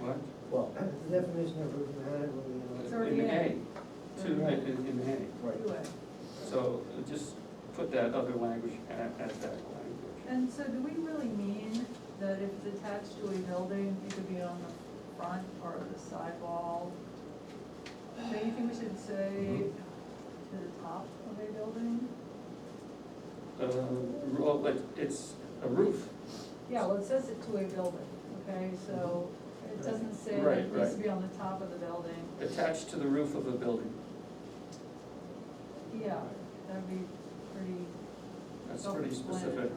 What? Well, Uh, The definition of mathematically. In It's A, already Mm-hmm. in. Two, in, in right, Anyway, A. So uh, just put that other language at, at that language. and so do we really mean that if it's attached to a building, it could be on the front or the side wall? Do you think we should say to the top of a building? Uh, well, but it's a roof, Yeah, well, it says it to a building, okay, so it doesn't say that Right, it needs to right. be on the top of the building. attached to the roof of a building. Yeah, that'd be pretty. Oh, That's pretty specific. self-explanatory.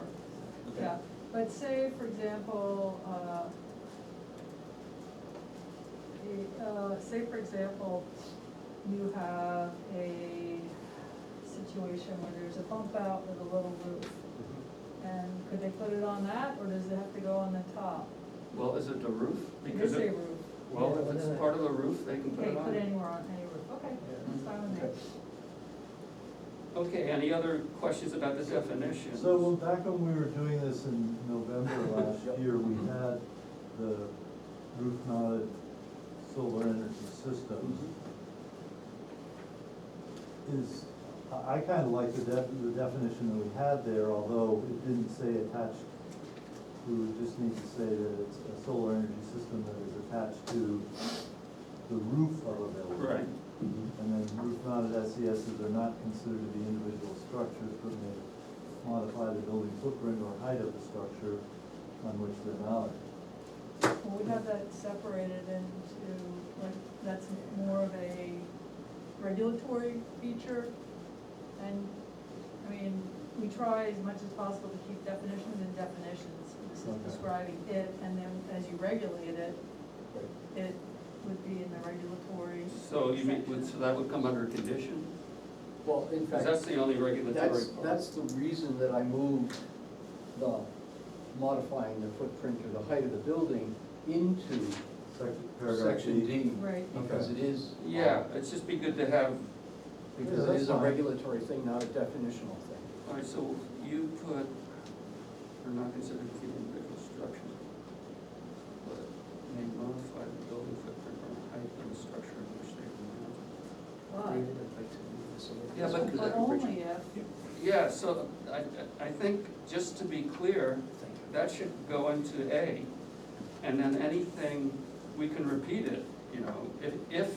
Okay. Yeah, but say, for example, uh, the, uh, say, for example, you have a situation where there's a bump out with a little roof. Mm-hmm. And could they put it on that, or does it have to go on the top? Well, is it the roof? They Because say it- roof, Well, if it's part of the roof, they can put okay, it put it on. anywhere on any roof, okay, that's fine with me. okay. Okay, any other questions about the definition? So, well, back when we were doing this in November last year, we had the roof mounted solar energy systems. Mm-hmm. Is, I, I kinda like the def, the definition that we had there, although it didn't say attached. We would just need to say that it's a solar energy system that is attached to the roof of a building. Right, And then roof-mounted SESs are not considered to be individual structures, but may modify the building footprint or height of the structure on which they're mounted. Well, we have that separated into, like, that's more of a regulatory feature. And, I mean, we try as much as possible to keep definitions and definitions. This is Okay. describing it, and then as you regulate it, it would be in the regulatory. so you mean, would- so section. that would come under condition? Well, in Because that's fact, the only regulatory that's, part. that's the reason that I moved the modifying the footprint or the height of the building into Section, paragraph section D. D. Right. Because it is. Yeah, it's just be good to have, Yeah, Because it that's is a fine. regulatory thing, not a definitional thing. all right, so you put, are not considered to be individual structures, but may modify the building footprint or height of the structure in which they are But, Yeah, but- but only if, mounted. Yeah, so I, I- I think, just to be clear, that should go into A, and then anything, we can repeat it, you know, if, if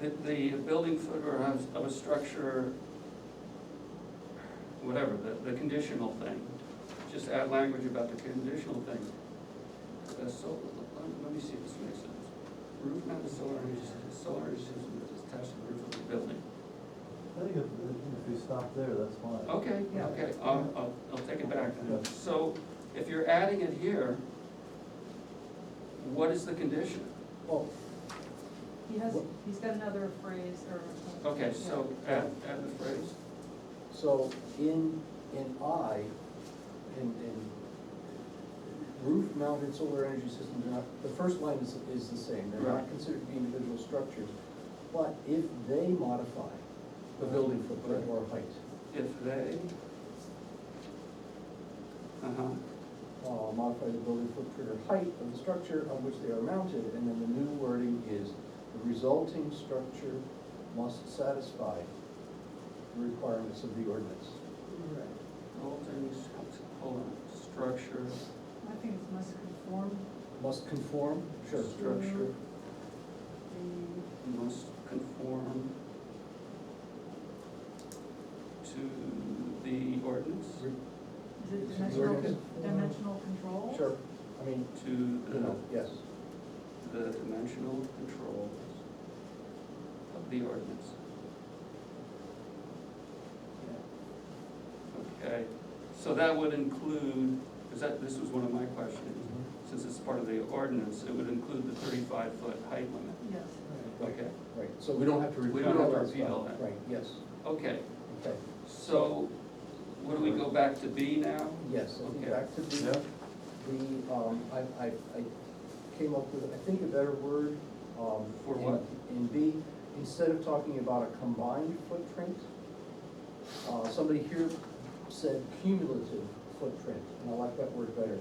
the, the building foot or house of a structure, whatever, the, the conditional thing, just add language about the conditional thing. Uh, so, let- let me see if this makes sense. Roof mounted solar energy, solar energy system that is attached to the roof of the building. I think if, if we stop there, that's fine. Okay, Yeah. okay, I'll, I'll, I'll take it back. Yeah. So if you're adding it here, what is the condition? Oh, he has, he's got another phrase or. Okay, so add, add the phrase, So in, in I, in, in roof mounted solar energy systems, are not, the first line is, is the same, they're Right. not considered to be individual structures. But if they modify the building footprint or height, if they. Uh-huh, uh, modify the building footprint or height of the structure on which they are mounted, and then the new wording is, the resulting structure must satisfy the requirements of the ordinance. building, hold on, structure, I think it must conform Must conform, sure, structure, the must conform to the ordinance, re- Is it It's dimensional, very- con- dimensional control? Sure, I mean, to you know, the, yes, the dimensional controls of the ordinance. Okay, so that would include, because that, this was one of my questions, Mm-hmm. since it's part of the ordinance, it would include the thirty-five foot height limit. Yes. Okay, right, so we don't have to repeat. We don't have to all repeat all stuff. that. Right, yes, okay, okay, so, what do we go back to B now? yes, I Okay. think back to the, the, um, I, I, I came up with, I think, a better word, um. For in- what? In B, instead of talking about a combined footprint, uh, somebody here said cumulative footprint, and I like that word better.